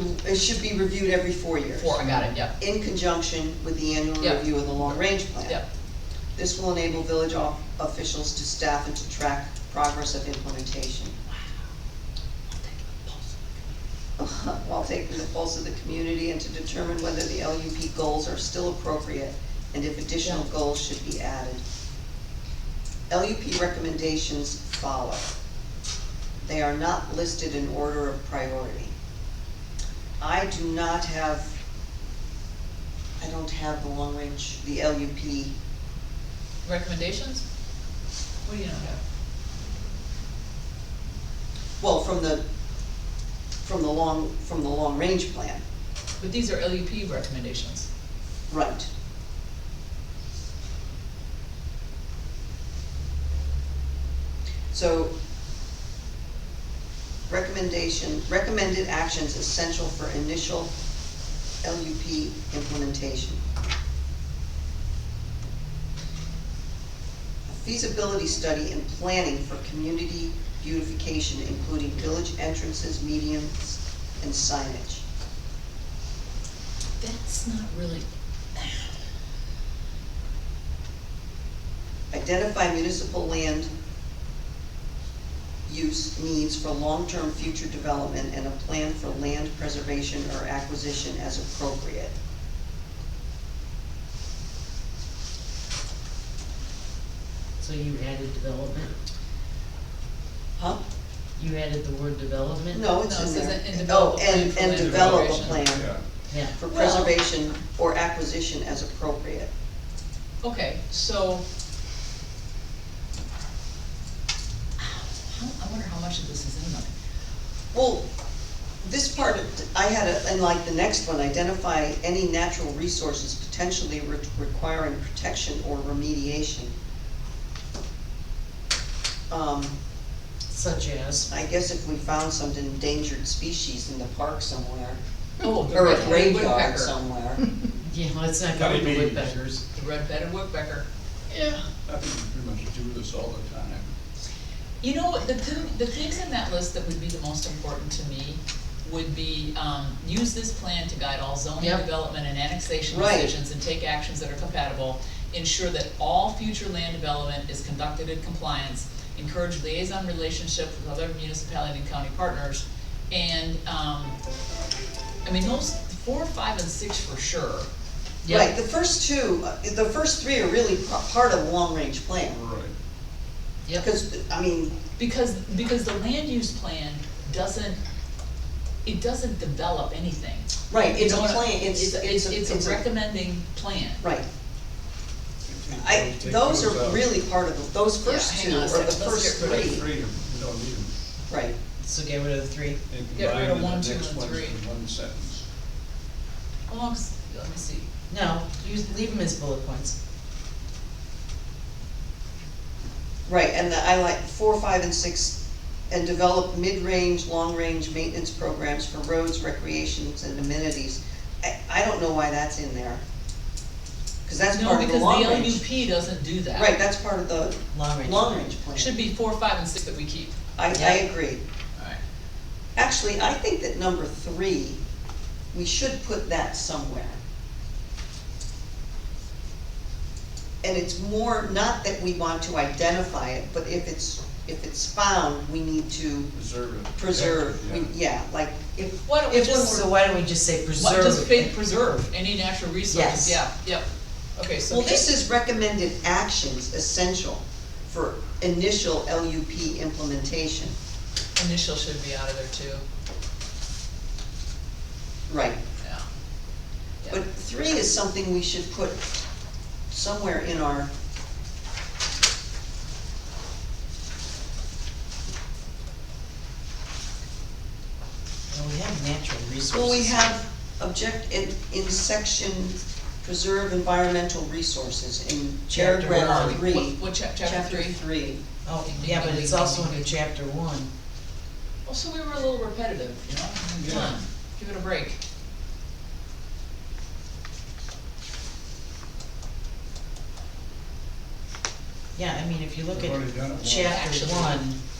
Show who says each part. Speaker 1: It should be reviewed every four years.
Speaker 2: Four, I got it, yep,
Speaker 1: In conjunction with the annual
Speaker 2: Yep.
Speaker 1: review of the long-range plan.
Speaker 2: yep.
Speaker 1: This will enable village o- officials to staff and to track progress of implementation. While taking the pulse of the community and to determine whether the LUP goals are still appropriate and if additional
Speaker 2: Yeah.
Speaker 1: goals should be added. LUP recommendations follow. They are not listed in order of priority. I do not have, I don't have the long range, the LUP
Speaker 2: Recommendations? What do you not have?
Speaker 1: Well, from the, from the long, from the long-range plan,
Speaker 2: But these are LUP recommendations.
Speaker 1: right. So, recommendation, recommended actions essential for initial LUP implementation. A feasibility study and planning for community beautification, including village entrances, medians, and signage.
Speaker 2: That's not really.
Speaker 1: Identify municipal land use needs for long-term future development and a plan for land preservation or acquisition as appropriate.
Speaker 3: So you added development,
Speaker 1: Huh?
Speaker 3: you added the word development?
Speaker 1: No, it's
Speaker 2: No, it
Speaker 1: in
Speaker 2: says
Speaker 1: there.
Speaker 2: and
Speaker 1: Oh,
Speaker 2: develop a
Speaker 1: and,
Speaker 2: plan
Speaker 1: and
Speaker 2: for land
Speaker 1: develop a
Speaker 2: preservation.
Speaker 1: plan
Speaker 3: Yeah,
Speaker 1: for
Speaker 2: Well-
Speaker 1: preservation or acquisition as appropriate.
Speaker 2: Okay, so. How- I wonder how much of this is in there.
Speaker 1: Well, this part, of- I had, a- and like the next one, identify any natural resources potentially re- requiring protection or remediation. Um,
Speaker 3: such as,
Speaker 1: I guess if we found some endangered species in the park somewhere,
Speaker 2: Oh, the
Speaker 1: or a
Speaker 2: red-headed
Speaker 1: graveyard
Speaker 2: woodpecker.
Speaker 1: somewhere.
Speaker 3: yeah, let's not go
Speaker 4: Honey
Speaker 3: with the
Speaker 4: bees.
Speaker 3: woodpeckers.
Speaker 2: The red-headed woodpecker.
Speaker 3: Yeah.
Speaker 4: I pretty much do this all the time.
Speaker 2: You know, what, the, thi- the things in that list that would be the most important to me would be, um, use this plan to guide all zoning
Speaker 3: Yep.
Speaker 2: development and annexation
Speaker 1: Right.
Speaker 2: decisions and take actions that are compatible. Ensure that all future land development is conducted in compliance, encourage liaison relationships with other municipality and county partners. And, um, I mean, those four, five, and six for sure.
Speaker 1: Right,
Speaker 3: Yeah,
Speaker 1: the first two, uh, the first three are really p- part of the long-range plan,
Speaker 4: Right.
Speaker 3: yep,
Speaker 1: because, I mean,
Speaker 2: Because, because the land use plan doesn't, it doesn't develop anything.
Speaker 1: right, it's a
Speaker 2: No, no,
Speaker 1: plan, it's, it's a,
Speaker 2: It's a recommending plan.
Speaker 1: Right,
Speaker 4: Take-
Speaker 1: I,
Speaker 4: take
Speaker 1: those are
Speaker 4: out.
Speaker 1: really part of, the- those first
Speaker 2: hang
Speaker 1: two are
Speaker 2: on a
Speaker 1: the
Speaker 2: second, let's
Speaker 1: first
Speaker 2: get
Speaker 4: But it's
Speaker 1: three,
Speaker 4: three, you don't need them.
Speaker 1: right.
Speaker 3: so get rid of the three.
Speaker 4: They
Speaker 2: Get rid of
Speaker 4: combine and
Speaker 2: one,
Speaker 4: the
Speaker 2: two,
Speaker 4: next
Speaker 2: and
Speaker 4: one's
Speaker 2: three.
Speaker 4: in one sentence.
Speaker 2: How long's, let me see,
Speaker 3: No, you leave them as bullet points.
Speaker 1: Right, and the, I like four, five, and six, and develop mid-range, long-range maintenance programs for roads, recreations, and amenities. I, I don't know why that's in there. Cause that's
Speaker 2: no,
Speaker 1: part of the
Speaker 2: because the
Speaker 1: long range.
Speaker 2: LUP doesn't do that.
Speaker 1: Right, that's part of the
Speaker 3: Long range.
Speaker 1: long-range plan.
Speaker 2: Should be four, five, and six that we keep.
Speaker 1: I, I
Speaker 3: Yeah.
Speaker 1: agree.
Speaker 2: Alright.
Speaker 1: Actually, I think that number three, we should put that somewhere. And it's more, not that we want to identify it, but if it's, if it's found, we need to
Speaker 4: Preserve it.
Speaker 1: preserve, we- yeah,
Speaker 4: Yeah.
Speaker 1: like, if,
Speaker 2: Why don't we
Speaker 1: if
Speaker 2: just-
Speaker 1: we're,
Speaker 3: So why don't we just say
Speaker 2: What,
Speaker 3: preserve?
Speaker 2: just fa- preserve any natural resources,
Speaker 3: Yes.
Speaker 2: yeah, yep. Okay, so.
Speaker 1: well, this is recommended actions essential for initial LUP implementation.
Speaker 2: Initial should be out of there too,
Speaker 1: Right,
Speaker 2: yeah. Yeah.
Speaker 1: but three is something we should put somewhere in our,
Speaker 3: Well, we have natural resources.
Speaker 1: well, we have object, in, in section preserve environmental resources in
Speaker 3: Chapter
Speaker 1: paragraph
Speaker 3: one.
Speaker 2: What,
Speaker 1: three.
Speaker 2: what, chap- chapter three?
Speaker 1: three.
Speaker 3: Oh, yeah, but it's also under chapter one.
Speaker 2: Well, so we were a little repetitive, you know, I mean, come
Speaker 4: Yeah.
Speaker 2: on, give it a break.
Speaker 3: Yeah, I mean, if you look
Speaker 4: We've already done it
Speaker 3: at
Speaker 4: once.
Speaker 3: chapter
Speaker 2: Actually.
Speaker 3: one,